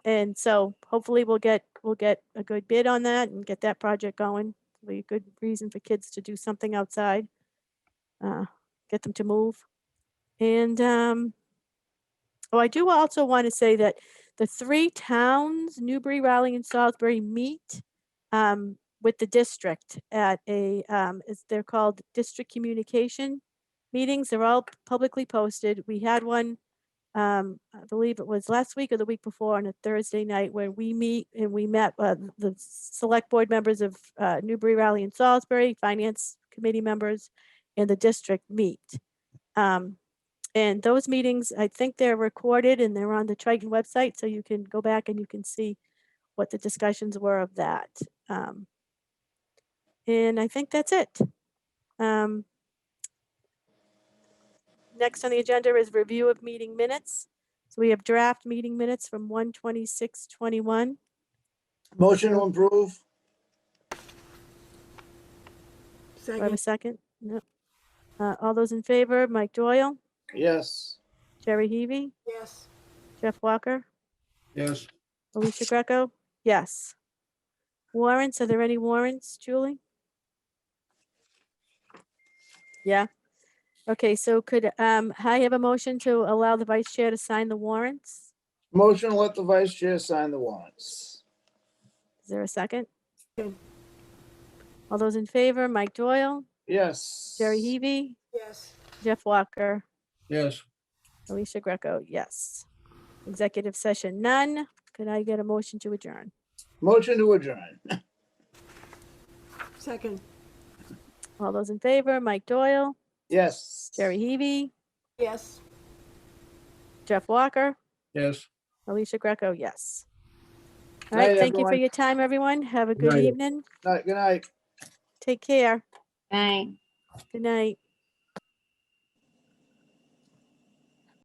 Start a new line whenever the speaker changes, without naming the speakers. And so hopefully we'll get, we'll get a good bid on that and get that project going. Be a good reason for kids to do something outside. uh, Get them to move. And, um, oh, I do also want to say that the three towns, Newbury, Raleigh and Salisbury meet um, with the district at a, um, is they're called district communication meetings. They're all publicly posted. We had one um, I believe it was last week or the week before on a Thursday night where we meet and we met, uh, the select board members of, uh, Newbury Raleigh and Salisbury, finance committee members and the district meet. Um, and those meetings, I think they're recorded and they're on the Triton website, so you can go back and you can see what the discussions were of that. Um, and I think that's it. Um, next on the agenda is review of meeting minutes. So we have draft meeting minutes from 1:26:21.
Motion to approve?
Do I have a
Second,
second? No. Uh, all those in favor, Mike Doyle,
Yes.
Jerry Heavy,
yes.
Jeff Walker,
Yes.
Alicia Greco? Yes. Warrants, are there any warrants, Julie? Yeah. Okay, so could, um, I have a motion to allow the vice chair to sign the warrants?
Motion to let the vice chair sign the warrants.
Is there a second?
Second.
All those in favor, Mike Doyle,
Yes.
Jerry Heavy,
Yes.
Jeff Walker,
Yes.
Alicia Greco, yes. Executive session, none. Could I get a motion to adjourn?
Motion to adjourn?
Second,
All those in favor, Mike Doyle,
Yes.
Jerry Heavy,
yes.
Jeff Walker,
Yes.
Alicia Greco, yes. All
Night,
right, thank you for
everyone.
your time, everyone. Have a good
Night.
evening.
Good night.
Take care.
Right.
Good night.